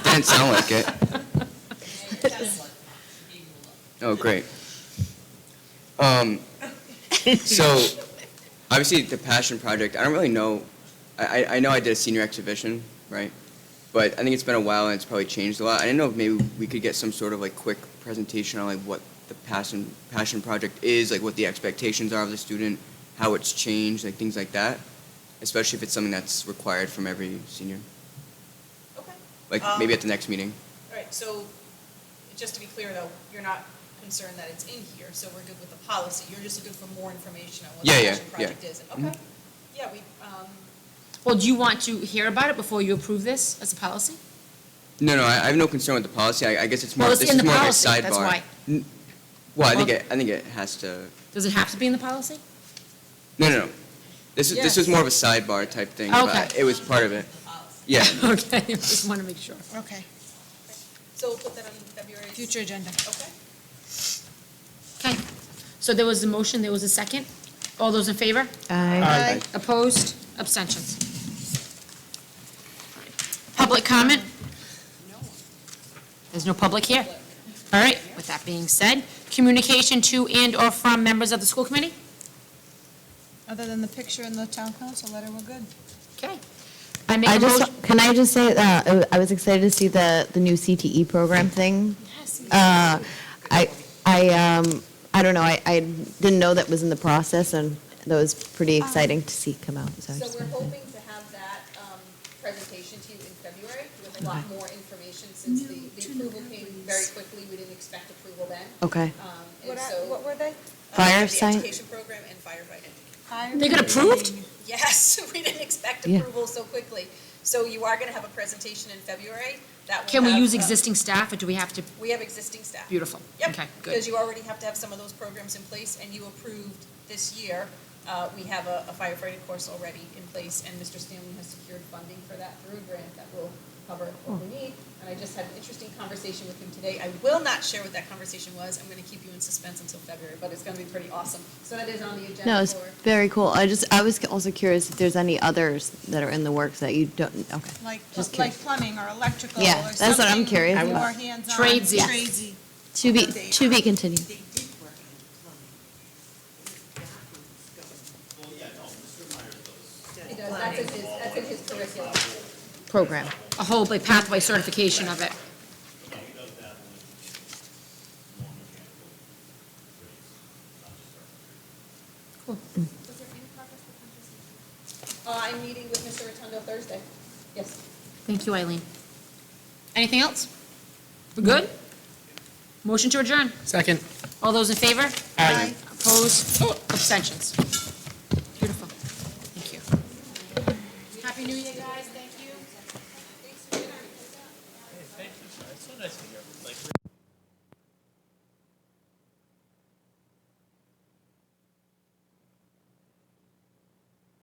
Didn't sound like it. Oh, great. Um, so, obviously, the passion project. I don't really know. I, I- I know I did a senior exhibition, right? But I think it's been a while and it's probably changed a lot. I didn't know if maybe we could get some sort of like quick presentation on like what the passion passion project is, like what the expectations are of the student, how it's changed, like things like that. Especially if it's something that's required from every senior, Okay. like Um, maybe at the next meeting. All right, so just to be clear though, you're not concerned that it's in here, so we're good with the policy. You're just looking for more information on what the Yeah, yeah, Mm-hmm. passion project yeah. is. And- Okay. Yeah, we, um, Well, do you want to hear about it before you approve this as a policy? No, no, I, I have no concern with the policy. I, I guess it's more. Well, it's this in is the more policy, Of a sidebar. that's why. N- Well, I think Well- it, I think it has to. Does it have to be in the policy? No, no, no. This is this was Yes. more of a sidebar type thing. But Okay. it was part of it. uh, Yeah. Okay, I just want to make sure. Okay, so we'll put that on February. future agenda. Okay. Okay, so there was a motion, there was a second. All those in favor? Aye. Opposed? Abstentions? Public comment? There's no public here. All right, with that being said, communication to and/or from members of the school committee? Other than the picture in the town council letter, we're good. Okay. I make I a motion. just, can I just say, that uh, I- I was excited to see the, the new CTE program thing. Uh, I, I, um, I don't know, I, I didn't know that was in the process, and that was pretty exciting to see come out, so. I So just we're wanted to- hoping to have that um, presentation to you in February with a lot more information since the the approval came very quickly. We didn't expect approval then. Okay. Um, What And are- so. What were they? Uh, Fire The science, education program and firefighting. They got approved? Yes, we didn't expect Yeah. approval so quickly. So you are going to have a presentation in February. That will Can we have, use uh, existing staff, or do we have to? We have existing staff. Beautiful. Yep. Okay, Because good. you already have to have some of those programs in place, and you approved this year, uh, we have a a firefighting course already in place, and Mr. Stanley has secured funding for that through a grant that will cover what we Oh. need. And I just had an interesting conversation with him today. I will not share what that conversation was. I'm going to keep you in suspense until February, but it's going to be pretty awesome. So that is on the no, agenda it's for. very cool. I just, I was also curious if there's any others that are in the works that you don't, okay. Like, Just like curious. plumbing or electrical or Yeah, something? that's what I'm curious More about. hands-on. Tradesy. Yes. Tradesy. To be, to be continued. They did work in plumbing. That was going. He does, that's in his, that's in his curriculum. Program. A whole like, pathway certification of it. Uh, I'm meeting with Mr. Rotundo Thursday. Yes. Thank you, Eileen. Anything else? We're good? Motion to adjourn. Second. All those in favor? Aye. Opposed? Abstentions? Beautiful. Thank you. Happy New Year, guys. Thank you.